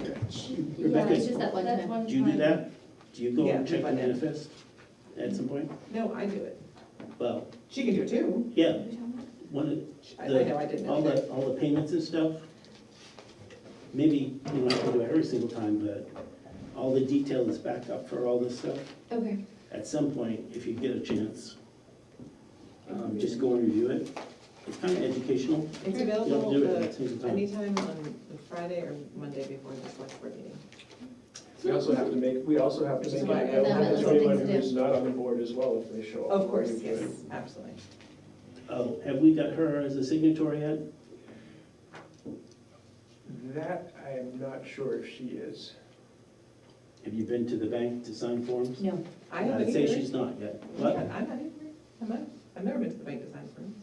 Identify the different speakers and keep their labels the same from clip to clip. Speaker 1: Rebecca,
Speaker 2: it's just that one
Speaker 3: That's
Speaker 2: time.
Speaker 3: one
Speaker 1: Do you do
Speaker 3: time.
Speaker 1: that? Do you go
Speaker 4: Yeah,
Speaker 1: and check the
Speaker 4: but-
Speaker 1: manifest at some point?
Speaker 4: No, I do it.
Speaker 1: Well,
Speaker 4: She can do it too.
Speaker 1: yeah, one of,
Speaker 4: I I
Speaker 1: The-
Speaker 4: know I didn't
Speaker 1: all
Speaker 4: know that.
Speaker 1: the, all the payments and stuff, maybe, you don't have to do it every single time, but all the detail is backed up for all this stuff.
Speaker 2: Okay,
Speaker 1: At some point, if you get a chance, um, just go and review it. It's kind of educational.
Speaker 4: It's
Speaker 1: You don't do it at
Speaker 4: available
Speaker 1: the same
Speaker 4: the-
Speaker 1: time.
Speaker 4: anytime on the Friday or Monday before the select board meeting.
Speaker 5: We also have to make, we also have to
Speaker 4: Which is
Speaker 5: make it
Speaker 4: why I
Speaker 5: available
Speaker 2: have
Speaker 5: to
Speaker 2: other
Speaker 5: anyone
Speaker 2: things
Speaker 5: who
Speaker 2: to
Speaker 5: is not on the board as well if they show up.
Speaker 4: Of course, yes, absolutely.
Speaker 1: Oh, have we got her as a signatory yet?
Speaker 5: That, I am not sure if she is.
Speaker 1: Have you been to the bank to sign forms?
Speaker 2: no,
Speaker 4: I haven't
Speaker 1: I'd say
Speaker 4: either.
Speaker 1: she's not yet,
Speaker 4: Yeah,
Speaker 1: but
Speaker 4: I'm not either. Am I? I've never been to the bank design firms.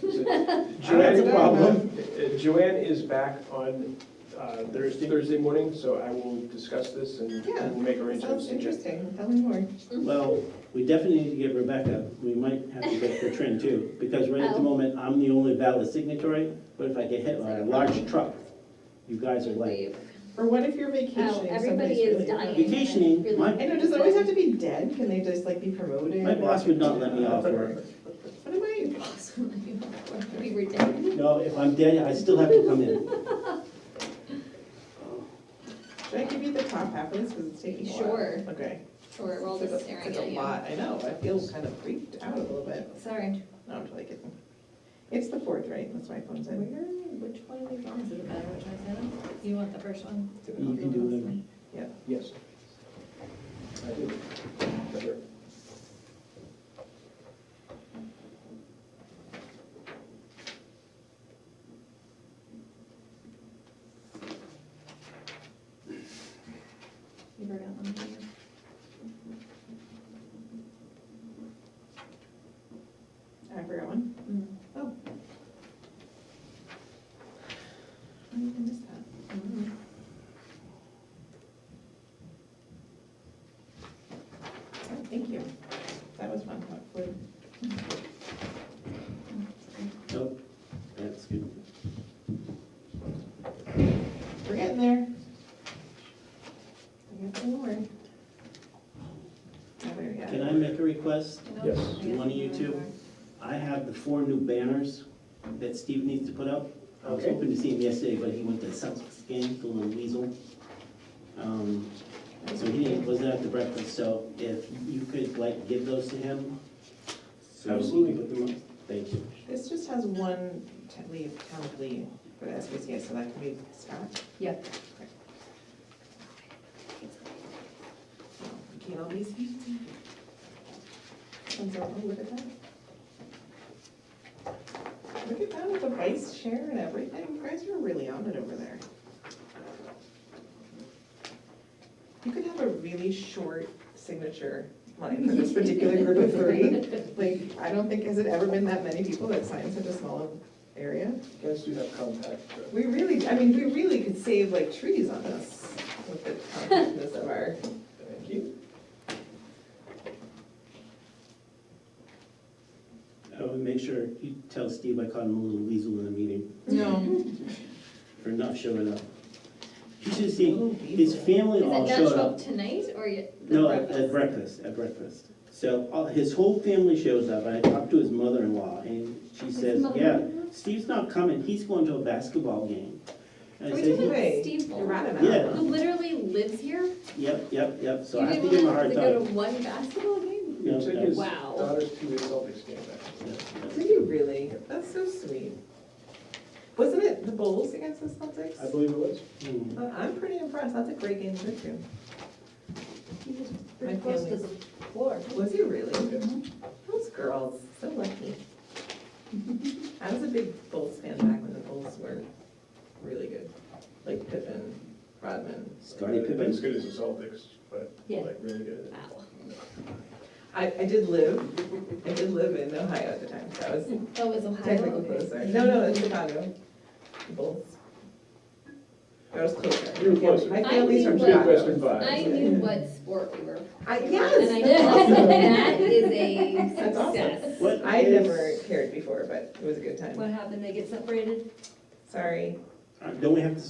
Speaker 5: Joanne-
Speaker 4: That's a problem.
Speaker 5: Uh, Joanne is back on uh, Thursday, Thursday morning, so I will discuss this and
Speaker 4: Yeah,
Speaker 5: we'll make arrangements.
Speaker 4: Sounds interesting. Tell me more.
Speaker 1: Well, we definitely need to get Rebecca, we might have to get Katrin too, because right at the
Speaker 2: Oh.
Speaker 1: moment, I'm the only valid signatory, but if I get hit by a large truck, you guys are like,
Speaker 2: leave.
Speaker 4: Or what if you're vacationing?
Speaker 2: Oh, everybody
Speaker 4: somebody's
Speaker 2: is
Speaker 4: really-
Speaker 2: dying.
Speaker 1: vacationing,
Speaker 4: I
Speaker 1: my,
Speaker 4: know, does it always have to be dead? Can they just like be promoted?
Speaker 1: my boss would not let me off work.
Speaker 4: What am I?
Speaker 2: Awesome. We were dead.
Speaker 1: No, if I'm dead, I still have to come in.
Speaker 4: Should I give you the top half of this because it's taking a while?
Speaker 2: Sure.
Speaker 4: Okay.
Speaker 2: Or we're all
Speaker 4: It's
Speaker 2: just
Speaker 4: a-
Speaker 2: staring
Speaker 4: it's a
Speaker 2: at you.
Speaker 4: lot. I know, I feel kind of freaked out a little bit.
Speaker 2: Sorry.
Speaker 4: No, I'm totally kidding. It's the fourth, right? That's why phone's in.
Speaker 2: Where, which one of these ones is it better, which one's that? You want the first one?
Speaker 1: You can do whatever.
Speaker 5: Yes. I do. Sure.
Speaker 2: You forgot one.
Speaker 4: I forgot one.
Speaker 2: Mm.
Speaker 4: I missed that.
Speaker 2: Mm.
Speaker 4: Oh, Thank you. That was fun. That flew.
Speaker 1: Nope, that's good.
Speaker 4: We're getting there. We got some more. Oh, there we
Speaker 1: Can
Speaker 4: go.
Speaker 1: I make a request?
Speaker 5: Yes.
Speaker 2: mm.
Speaker 1: Do one of you two? I have the four new banners that Steve needs to put up. I was
Speaker 5: Okay.
Speaker 1: hoping to see him yesterday, but he went to Celtics game, the little weasel. Um, So he didn't- wasn't at the breakfast, so if you could like give those to him? so he can
Speaker 5: Absolutely.
Speaker 1: put them up. Thank you.
Speaker 4: This just has one t- leave, town of Lee for the SPCA, so that can be Scott.
Speaker 2: Yep.
Speaker 4: Oh, we Can't all be seen. And so, oh, look at that. Look at that with the vice chair and everything. You guys are really on it over there. You could have a really short signature line for this particular group of three. Like, I don't think, has it ever been that many people that sign such a small area?
Speaker 5: You guys do have contact. uh,
Speaker 4: We really, I mean, we really could save like trees on this with the compactness of our.
Speaker 5: Thank you.
Speaker 1: I would make sure you tell Steve I caught him a little weasel in the meeting
Speaker 4: No.
Speaker 1: for not showing up. You should see, his
Speaker 4: It's
Speaker 1: family
Speaker 2: Is it
Speaker 1: all
Speaker 2: not
Speaker 1: showed
Speaker 2: show
Speaker 1: up.
Speaker 2: up tonight or yet? the
Speaker 1: No, at-
Speaker 2: breakfast?
Speaker 1: at breakfast, at breakfast. So all- his whole family shows up, and I talked to his mother-in-law, and she says, yeah,
Speaker 2: mother-in-law?
Speaker 1: Steve's not coming, he's going to a basketball game. And I
Speaker 4: Are we
Speaker 1: said,
Speaker 4: talking
Speaker 1: "He-
Speaker 4: Wait,
Speaker 2: Steve
Speaker 4: You're right
Speaker 2: Ballmer,
Speaker 4: about
Speaker 1: Yeah.
Speaker 4: that.
Speaker 2: who literally lives here?
Speaker 1: yep, yep, yep, so
Speaker 2: You
Speaker 1: I have to
Speaker 2: didn't
Speaker 1: give him a
Speaker 2: want
Speaker 1: hard
Speaker 2: to go
Speaker 1: time.
Speaker 2: to one basketball game?
Speaker 1: No,
Speaker 5: You took
Speaker 1: no.
Speaker 5: his
Speaker 2: Wow.
Speaker 5: daughters to the Celtics game, actually.
Speaker 1: Yeah,
Speaker 4: Did you really? That's so sweet. Wasn't it the Bulls against the Celtics?
Speaker 5: I believe it was.
Speaker 1: yeah. Hmm.
Speaker 4: Uh, I'm pretty impressed. That's a great game to go to.
Speaker 3: He was
Speaker 4: My
Speaker 3: pretty close to the
Speaker 4: family.
Speaker 3: floor.
Speaker 4: Was he really?
Speaker 5: Yeah.
Speaker 4: Those girls, so lucky. I was a big Bulls fan back when the Bulls were really good, like Pippen, Rodman.
Speaker 1: Scottie Pippen.
Speaker 5: As good as the Celtics, but
Speaker 2: Yeah.
Speaker 5: like really good.
Speaker 2: Wow.
Speaker 4: I, I did live, I did live in Ohio at the time, so I was
Speaker 2: Oh, it was
Speaker 4: technically
Speaker 2: Ohio?
Speaker 4: closer. No, no, it's Chicago. The Bulls. I was closer.
Speaker 5: You were closer.
Speaker 4: My family's from
Speaker 2: I think
Speaker 4: Chicago.
Speaker 5: Midwestern
Speaker 2: I
Speaker 5: vibes.
Speaker 2: knew what sport we were.
Speaker 4: I,
Speaker 2: And I
Speaker 4: yes.
Speaker 2: know that is a
Speaker 4: That's awesome.
Speaker 2: success.
Speaker 1: What
Speaker 4: I
Speaker 1: is-
Speaker 4: never cared before, but it was a good time.
Speaker 3: What happened? They get separated?
Speaker 4: Sorry.
Speaker 1: uh, Don't we have to